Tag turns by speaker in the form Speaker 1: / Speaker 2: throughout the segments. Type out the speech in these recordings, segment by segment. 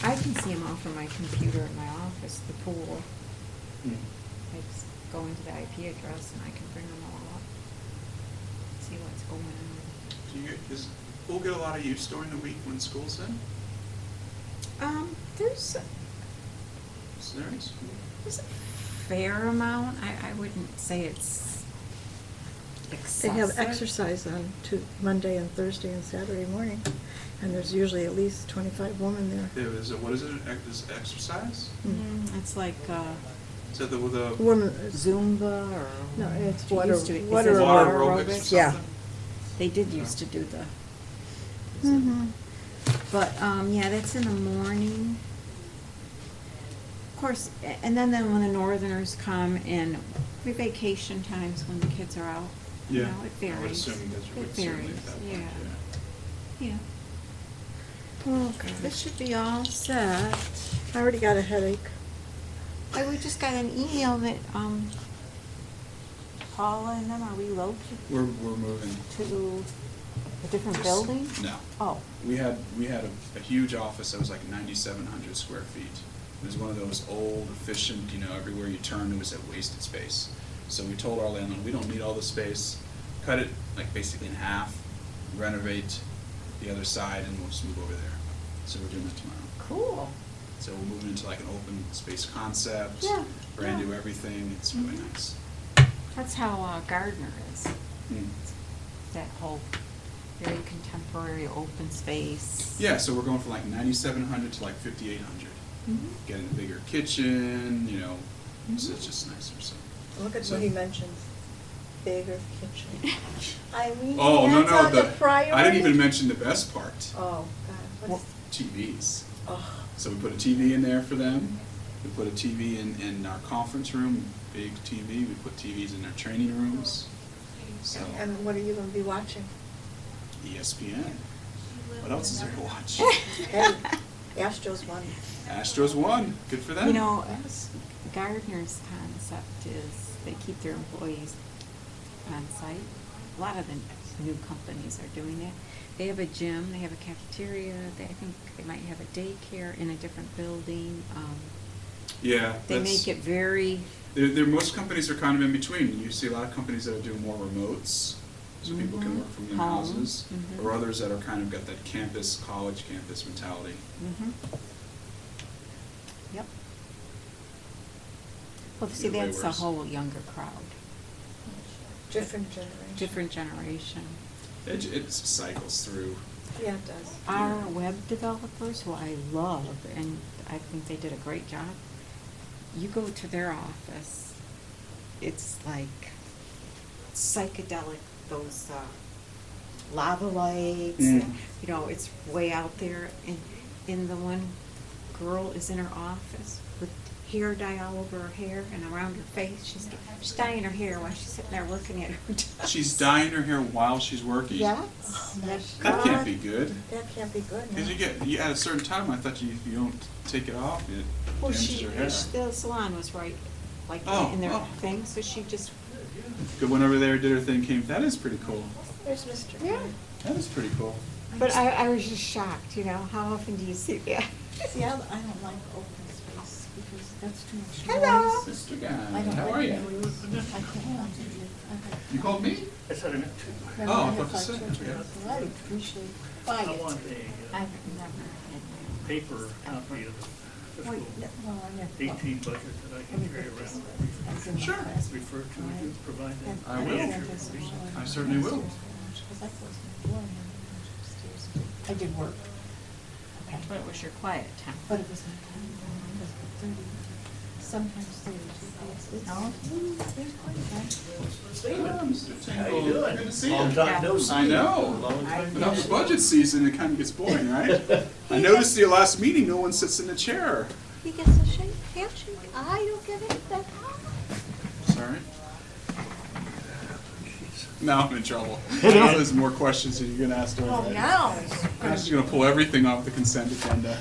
Speaker 1: can see them all from my computer in my office, the pool.
Speaker 2: Mm.
Speaker 1: I just go into the IP address and I can bring them all up, see what's going on.
Speaker 2: Do you, does pool get a lot of use during the week when school's in?
Speaker 1: Um, there's,
Speaker 2: Is there any school?
Speaker 1: there's a fair amount, I, I wouldn't say it's
Speaker 3: They
Speaker 1: excessive.
Speaker 3: have exercise on Tu- Monday and Thursday and Saturday morning, and there's usually at least twenty-five women there.
Speaker 2: There is a, what is it, an ex- is it exercise?
Speaker 1: Mm, It's like, uh,
Speaker 2: Is that the, with the
Speaker 3: Women,
Speaker 1: Zumba or.
Speaker 3: No, it's
Speaker 1: It
Speaker 3: water-
Speaker 1: used to- is it
Speaker 3: water
Speaker 2: water
Speaker 3: aerobics.
Speaker 2: aerobics or
Speaker 3: Yeah.
Speaker 2: something?
Speaker 1: They did used to do the. Mm-hmm.
Speaker 3: Mhm.
Speaker 1: But, um, yeah, that's in the morning. Of course, a- and then, then when the northerners come and we vacation times when the kids are out, you
Speaker 2: Yeah.
Speaker 1: know, it varies.
Speaker 2: I would assume that you
Speaker 1: It
Speaker 2: would certainly
Speaker 1: varies,
Speaker 2: at that point,
Speaker 1: yeah.
Speaker 2: yeah.
Speaker 1: Yeah.
Speaker 3: Okay.
Speaker 1: This should be all set.
Speaker 3: I already got a headache.
Speaker 1: I, we just got an email that, um, Paula and them are relocated
Speaker 2: We're, we're moving.
Speaker 1: to a different
Speaker 2: Just-
Speaker 1: building?
Speaker 2: No.
Speaker 1: Oh.
Speaker 2: We had, we had a, a huge office that was like ninety-seven hundred square feet. It was one of those old, efficient, you know, everywhere you turned, it was that wasted space. So we told our landlord, we don't need all the space, cut it like basically in half, renovate the other side, and we'll just move over there. So we're doing that tomorrow.
Speaker 1: Cool.
Speaker 2: So we're moving into like an open space concept,
Speaker 1: Yeah,
Speaker 2: brand
Speaker 1: yeah.
Speaker 2: new everything, it's really
Speaker 1: Mhm.
Speaker 2: nice.
Speaker 1: That's how uh, Gardner is.
Speaker 2: Mm.
Speaker 1: That whole very contemporary open space.
Speaker 2: Yeah, so we're going from like ninety-seven hundred to like fifty-eight hundred.
Speaker 1: Mhm.
Speaker 2: Getting a bigger kitchen, you know, so
Speaker 3: Mm-hmm.
Speaker 1: Mhm.
Speaker 2: it's just nicer, so.
Speaker 3: Look at
Speaker 2: So-
Speaker 3: what he mentions, bigger kitchen. I mean,
Speaker 2: Oh, no,
Speaker 3: that's
Speaker 2: no,
Speaker 3: on the
Speaker 2: the,
Speaker 3: priority.
Speaker 2: I didn't even mention the best part,
Speaker 3: Oh, God, what is,
Speaker 2: TVs.
Speaker 3: oh,
Speaker 2: So we put a TV in there for them, we put a TV in, in our conference room, big TV, we put TVs in their training rooms. So E
Speaker 3: and what are you gonna be watching?
Speaker 2: ESPN, what else is there to watch?
Speaker 3: Hey, Astros won.
Speaker 2: Astros won, good for them.
Speaker 1: You know, Gardner's concept is they keep their employees on site. A lot of the new companies are doing that. They have a gym, they have a cafeteria, they, I think they might have a daycare in a different building. Um,
Speaker 2: Yeah.
Speaker 1: They
Speaker 2: that's-
Speaker 1: make it very,
Speaker 2: There, there, most companies are kind of in between. You see a lot of companies that are doing more remotes, so people
Speaker 1: Mhm.
Speaker 2: can work from their
Speaker 1: Home.
Speaker 2: houses,
Speaker 1: Mhm.
Speaker 2: or others that are kind of got that campus, college campus mentality.
Speaker 1: mhm. Yep. Well, see,
Speaker 2: Either way
Speaker 1: that's a
Speaker 2: works.
Speaker 1: whole younger crowd,
Speaker 3: Different generation.
Speaker 1: different generation.
Speaker 2: It, j- it cycles through.
Speaker 3: Yeah, it does.
Speaker 1: Our web developers, who I love, and I think they did a great job, you go to their office, it's like psychedelic, those uh, lava lights,
Speaker 2: Mm.
Speaker 1: and, you know, it's way out there. And, and the one girl is in her office with hair dye all over her hair and around her face. She's, she's dyeing her hair while she's sitting there looking at her desk.
Speaker 2: She's dyeing her hair while she's working.
Speaker 1: Yes.
Speaker 3: Oh, my
Speaker 1: Yes.
Speaker 2: That can't be
Speaker 3: God.
Speaker 2: good.
Speaker 3: That can't be good now.
Speaker 2: Because you get you, at a certain time, I thought you if you don't take it off, it
Speaker 1: Well,
Speaker 2: damages
Speaker 1: she,
Speaker 2: your hair.
Speaker 1: she- the salon was right, like,
Speaker 2: Oh,
Speaker 1: in their
Speaker 2: oh.
Speaker 1: thing, so she just,
Speaker 2: Good went over there, did her thing, came. That is pretty cool.
Speaker 3: There's Mr.
Speaker 1: Yeah.
Speaker 3: Green.
Speaker 2: That is pretty cool.
Speaker 1: but I, I was just shocked, you know, how often do you see that?
Speaker 3: See, I, I don't like open space because that's too much noise.
Speaker 1: Hello.
Speaker 2: Mr. Guy,
Speaker 3: I don't
Speaker 2: how
Speaker 3: like
Speaker 2: are you?
Speaker 3: noise. I can't concentrate.
Speaker 2: You called me?
Speaker 4: I thought I meant
Speaker 3: My
Speaker 2: Oh, I
Speaker 3: mother
Speaker 2: thought you
Speaker 3: had
Speaker 2: said-
Speaker 3: children, so I appreciate
Speaker 4: I
Speaker 3: quiet.
Speaker 4: want a uh,
Speaker 1: never
Speaker 4: paper copy of the
Speaker 3: Well,
Speaker 4: fiscal
Speaker 3: no, Oh, well, I never-
Speaker 4: eighteen budget that I can carry around.
Speaker 3: That's in my
Speaker 2: Sure.
Speaker 3: class.
Speaker 4: Refer to, it, you provide that.
Speaker 3: And
Speaker 2: I
Speaker 3: don't
Speaker 2: will.
Speaker 3: have this in my
Speaker 2: I certainly will.
Speaker 3: Because I closed my door and I went upstairs. I did work,
Speaker 1: But it was your quiet time.
Speaker 3: but it was my time, it was thirty, sometimes thirty-two. It's-
Speaker 1: No.
Speaker 3: it's- it's quite a time.
Speaker 2: Hello, Mr. Tingle.
Speaker 4: How you doing?
Speaker 2: Good to see
Speaker 4: Long
Speaker 2: you.
Speaker 4: time no see.
Speaker 2: I know.
Speaker 4: Long time
Speaker 2: But
Speaker 4: no
Speaker 2: now it's
Speaker 4: see.
Speaker 2: budget season, it kind of gets boring, right? I noticed the last meeting, no one sits in the chair.
Speaker 3: He gets a shake, handshake,
Speaker 1: Ah,
Speaker 3: I don't get it, but
Speaker 2: Sorry. Now I'm in trouble. Now there's more questions that you're gonna ask during
Speaker 3: Oh,
Speaker 2: that.
Speaker 3: now.
Speaker 2: I'm just gonna pull everything off the consent agenda.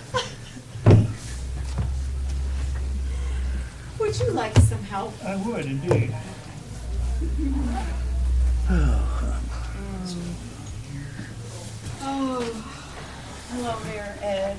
Speaker 1: Would you like some help?
Speaker 4: I would indeed.
Speaker 5: Hello, Mayor Ed,